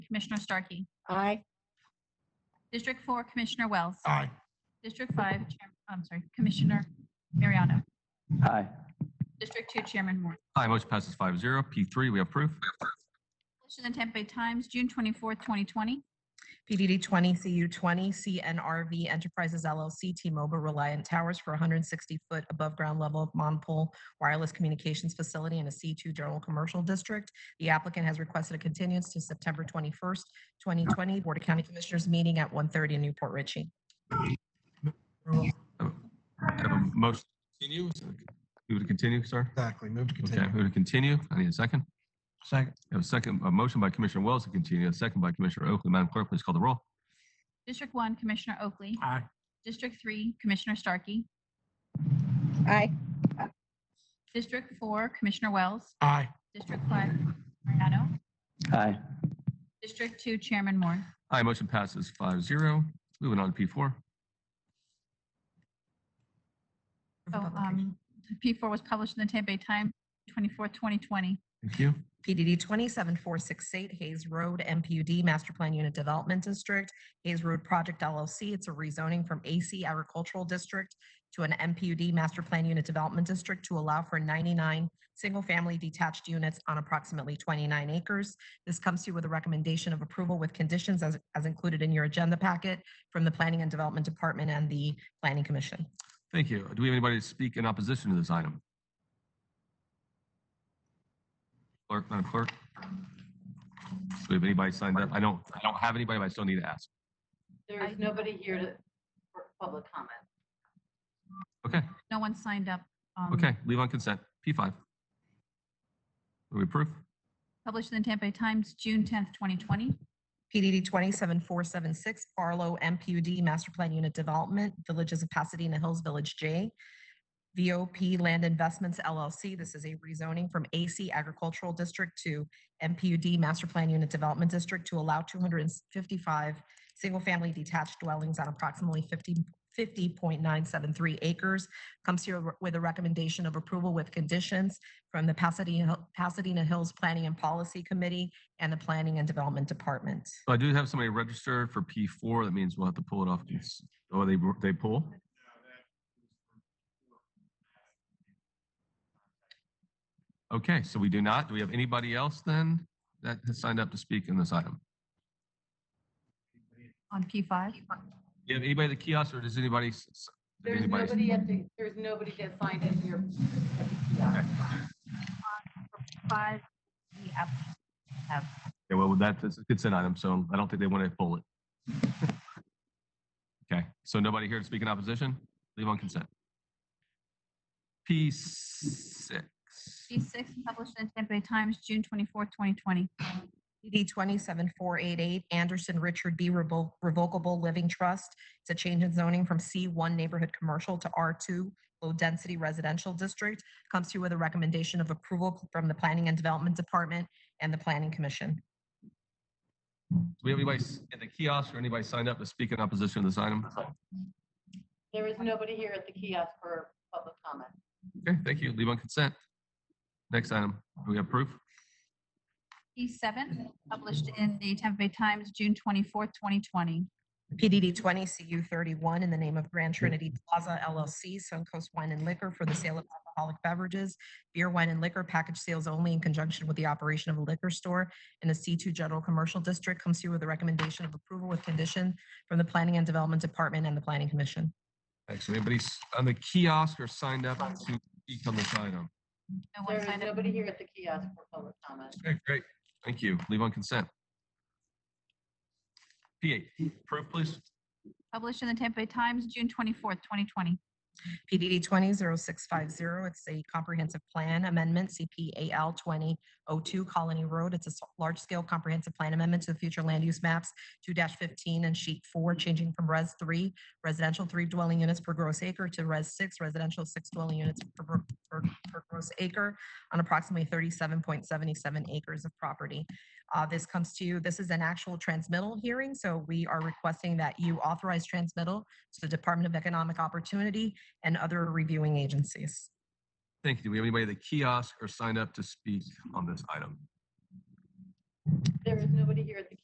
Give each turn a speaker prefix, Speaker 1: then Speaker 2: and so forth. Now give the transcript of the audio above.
Speaker 1: Commissioner Starkey.
Speaker 2: Aye.
Speaker 1: District four, Commissioner Wells.
Speaker 3: Aye.
Speaker 1: District five, Chair- I'm sorry, Commissioner Mariano.
Speaker 4: Aye.
Speaker 1: District two, Chairman Moore.
Speaker 5: Aye, motion passes five zero. P three, we approve.
Speaker 1: Published in the Tampa Bay Times, June twenty-fourth, twenty twenty.
Speaker 6: PDD 20, CU 20, CNRV Enterprises LLC, T-Mobile Reliant Towers for 160-foot above-ground level of monopole wireless communications facility in a C2 General Commercial District. The applicant has requested a continuance to September 21st, 2020, Board of County Commissioners meeting at 1:30 in Newport Ritchie.
Speaker 5: Have a motion to continue. Who to continue, sir?
Speaker 3: Exactly. Move to
Speaker 5: Okay,
Speaker 3: continue.
Speaker 5: who to continue? I need a second.
Speaker 3: Second.
Speaker 5: I have a second, a motion by Commissioner Wells to continue, a second by Commissioner Oakley. Madam Clerk, please call the roll.
Speaker 1: District one, Commissioner Oakley.
Speaker 3: Aye.
Speaker 1: District three, Commissioner Starkey.
Speaker 2: Aye.
Speaker 1: District four, Commissioner Wells.
Speaker 3: Aye.
Speaker 1: District five, Mariano.
Speaker 4: Aye.
Speaker 1: District two, Chairman Moore.
Speaker 5: Aye, motion passes five zero. Moving on to P four.
Speaker 1: So, um, P four was published in the Tampa Bay Times, twenty-fourth, twenty twenty.
Speaker 5: Thank you.
Speaker 6: PDD 27468 Hayes Road MPUD Master Plan Unit Development District, Hayes Road Project LLC. It's a rezoning from AC Agricultural District to an MPUD Master Plan Unit Development District to allow for 99 single-family detached units on approximately 29 acres. This comes to you with a recommendation of approval with conditions as, as included in your agenda packet from the Planning and Development Department and the Planning Commission.
Speaker 5: Thank you. Do we have anybody to speak in opposition to this item? Clerk, Madam Clerk? Do we have anybody signed up? I don't, I don't have anybody, but I still need to ask.
Speaker 7: There is nobody here to, for public comment.
Speaker 5: Okay,
Speaker 1: No one signed up. um,
Speaker 5: okay, leave on consent. P five. Do we approve?
Speaker 1: Published in the Tampa Bay Times, June tenth, twenty twenty.
Speaker 6: PDD 27476 Barlow MPUD Master Plan Unit Development, Villages of Pasadena Hills, Village J. VOP Land Investments LLC. This is a rezoning from AC Agricultural District to MPUD Master Plan Unit Development District to allow 255 single-family detached dwellings on approximately 50 50.973 acres. Comes here with a recommendation of approval with conditions from the Pasadena Pasadena Hills Planning and Policy Committee and the Planning and Development Department.
Speaker 5: So I do have somebody registered for P four. That means we'll have to pull it off. cons- Oh, they, they pull? Okay, so we do not. Do we have anybody else then that has signed up to speak in this item?
Speaker 1: on P five.
Speaker 5: Do you have anybody at the kiosk or does anybody? s- s- did
Speaker 7: There's
Speaker 5: anybody-
Speaker 7: nobody at the, there's nobody that signed in here. at the kiosk.
Speaker 1: Five, the app-
Speaker 5: Yeah, well, that is a consent item, so I don't think they want to pull it. Okay, so nobody here to speak in opposition? Leave on consent. P six.
Speaker 1: P six, published in the Tampa Bay Times, June twenty-fourth, twenty twenty.
Speaker 6: PD 27488 Anderson Richard B. Revo- Revocable Living Trust. It's a change in zoning from C1 Neighborhood Commercial to R2 Low Density Residential District. Comes to you with a recommendation of approval from the Planning and Development Department and the Planning Commission.
Speaker 5: Do we have anybody s- at the kiosk or anybody signed up to speak in opposition to this item?
Speaker 7: There is nobody here at the kiosk for public comment.
Speaker 5: Okay, thank you. Leave on consent. Next item, do we have proof?
Speaker 1: P seven, published in the Tampa Bay Times, June twenty-fourth, twenty twenty.
Speaker 6: PDD 20 CU 31 in the name of Grand Trinity Plaza LLC, Suncoast Wine and Liquor for the sale of alcoholic beverages, beer, wine, and liquor package sales only in conjunction with the operation of a liquor store in a C2 General Commercial District comes here with a recommendation of approval with condition from the Planning and Development Department and the Planning Commission.
Speaker 5: Actually, anybody s- on the kiosk or signed up to speak on this item?
Speaker 1: No
Speaker 7: There
Speaker 1: one
Speaker 7: is
Speaker 1: signed up.
Speaker 7: nobody here at the kiosk for public comment.
Speaker 5: Okay, great. Thank you. Leave on consent. P eight, proof, please.
Speaker 1: Published in the Tampa Bay Times, June twenty-fourth, twenty twenty.
Speaker 6: PDD 200650, it's a comprehensive plan amendment, CPAL 2002 Colony Road. It's a s- large-scale comprehensive plan amendment to the future land use maps, 2-15 and sheet 4, changing from Res 3 residential 3 dwelling units per gross acre to Res 6 residential 6 dwelling units per gro- per per gross acre on approximately 37.77 acres of property. Uh, This comes to you, this is an actual transmittal hearing, so we are requesting that you authorize transmittal to the Department of Economic Opportunity and other reviewing agencies.
Speaker 5: Thank you. Do we have anybody at the kiosk or signed up to speak on this item?
Speaker 7: There is nobody here at the